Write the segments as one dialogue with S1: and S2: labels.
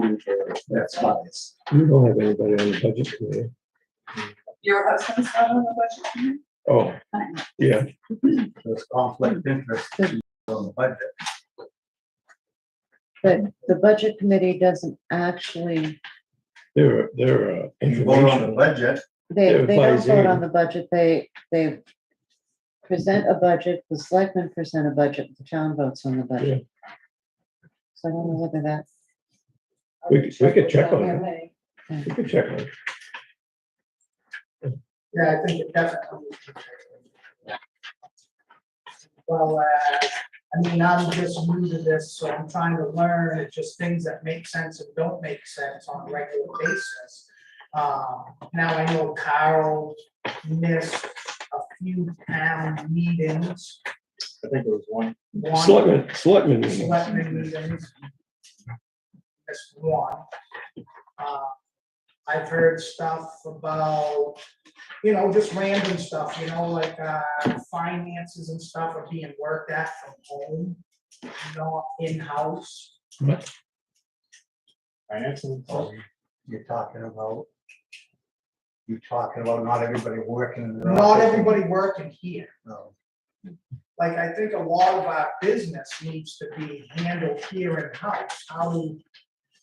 S1: care of that size.
S2: We don't have anybody on the budget committee.
S3: Your husband's not on the budget committee?
S2: Oh, yeah,
S1: There's conflict of interest on the budget.
S4: But the budget committee doesn't actually,
S2: they're, they're. uh,
S1: You vote on the
S2: informational.
S1: budget,
S4: they, they don't
S2: Everybody's
S4: vote
S2: in.
S4: on the budget, they, they present a budget, the selectmen present a budget, the town votes on the budget. So I don't know whether that,
S2: We could- we could check on
S3: that.
S2: You can check on it.
S5: Yeah, I think it definitely. Well, uh, I mean, I'm just new to this, so I'm trying to learn, it's just things that make sense and don't make sense on a regular basis. Um, now I know Carl missed a few town meetings,
S1: I think it was one,
S5: one
S2: Selectmen, selectmen. meeting.
S5: selectmen meetings. Missed one. Uh, I've heard stuff about, you know, just random stuff, you know, like, uh, finances and stuff are being worked at from home, not in-house.
S1: financing, oh, you- you're talking about. You're talking about not everybody working. in their
S5: Not
S1: office.
S5: everybody working here.
S1: No.
S5: Like, I think a lot of our business needs to be handled here in-house. How we,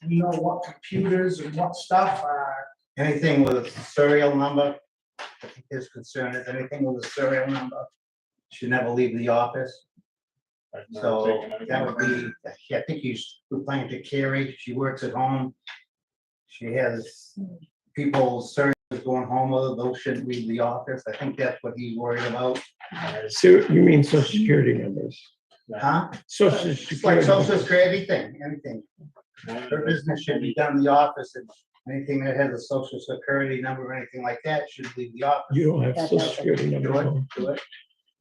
S5: you know, what computers and what stuff are,
S1: Anything with a serial number, I think his concern is anything with a serial number should never leave the office. So that would be, I think he's replying to Carrie, she works at home. She has people, servers going home, with her. those shouldn't leave the office. I think that's what he's worried about.
S2: So you mean social security numbers?
S1: Huh?
S2: Social
S1: It's like
S2: security.
S1: social security, anything, anything. Her business should be done in the office and anything that has a social security number or anything like that should leave the office.
S2: You don't have social security numbers.
S1: Do it,
S2: on.
S1: do it.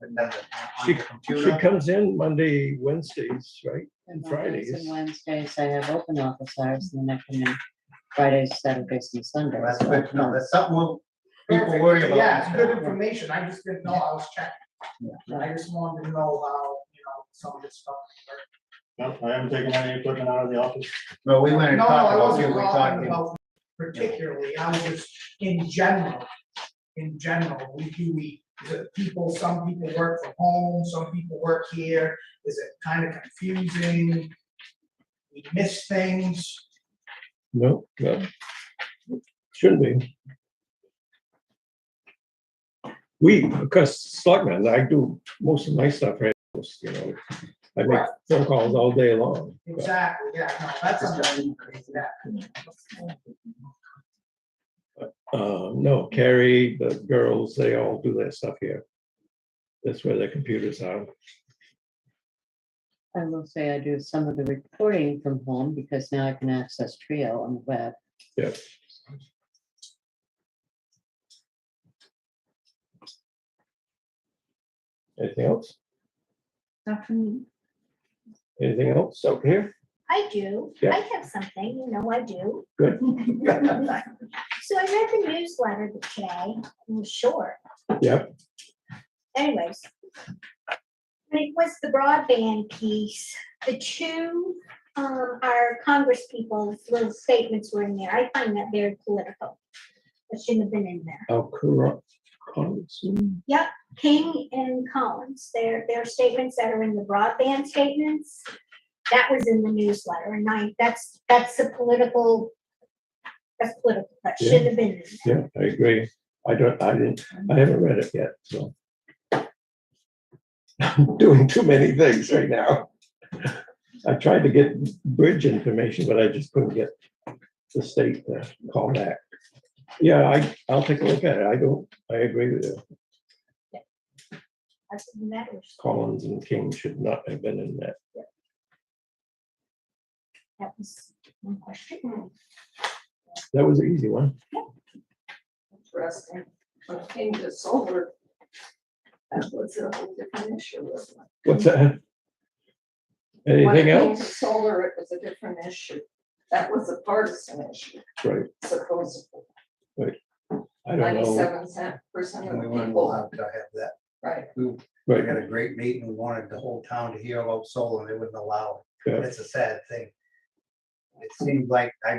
S1: But not on
S2: She-
S1: the
S2: She
S1: computer.
S2: comes in Monday, Wednesdays, right?
S4: and
S2: Fridays.
S4: Mondays and Wednesdays, I have open office hours, and then I come in Fridays, Saturdays, and Sundays.
S1: That's
S4: so I
S1: good to know.
S4: can't-
S1: That's something we'll- people
S5: Perfect.
S1: worry about.
S5: Yeah, it's good information, I just didn't know, I was checking.
S4: Yeah.
S5: I just wanted to know how, you know, some of this stuff. worked.
S6: No, I haven't taken any equipment out of the office.
S1: No, we went and
S5: No, no,
S1: talked
S5: I
S1: about, we
S5: wasn't
S1: were
S5: talking
S1: talking.
S5: about particularly, I was just, in general, in general, we do, we, the people, some people work from home, some people work here, is it kind of confusing? We miss things,
S2: No, no. Shouldn't be. We, because selectmen, I do most of my stuff, right, most, you know, I make
S5: Right.
S2: phone calls all day long. but-
S5: exactly, yeah, no, that's understandable, yeah.
S2: Uh, no, Carrie, the girls, they all do their stuff here. That's where their computers are.
S4: I will say I do some of the recording from home because now I can access Trio on the web.
S2: Yeah. Anything else? Anything else out here?
S7: I do.
S2: Yeah.
S7: I have something, you know I do.
S2: Good.
S7: So I read the newsletter today, it was short.
S2: Yeah.
S7: Anyways. It was the broadband piece. The two, um, our congresspeople's little statements were in there. I find that very political. It shouldn't have been in there.
S2: Al Kura- Congressman?
S7: King and Collins, their, their statements that are in the broadband statements, that was in the newsletter, and I, that's, that's a political, that's political, that
S2: Yeah.
S7: shouldn't have been in there.
S2: Yeah, I agree. I don't, I didn't, I haven't read it yet, so. I'm Doing too many things right now. I tried to get bridge information, but I just couldn't get the state to call back. Yeah, I, I'll take a look at it. I don't, I agree with you.
S7: That's what matters.
S2: Collins and King should not have been in that.
S7: That was one question.
S2: That was an easy one.
S3: Interesting. When it came to solar, that was a whole different issue, wasn't it?
S2: What's that?
S3: When it
S2: Anything
S3: came to
S2: else?
S3: Solar, it was a different issue. That was a partisan issue,
S2: Right,
S3: supposedly.
S2: I don't know.
S3: Ninety-seven cent percent of
S1: And
S3: the
S1: we weren't allowed
S3: people,
S1: to have that.
S3: right?
S1: We we
S2: Right,
S1: had a great meeting, we wanted the whole town to hear about solar, and they wouldn't allow it.
S2: Yeah.
S1: It's a sad thing. It seems like, I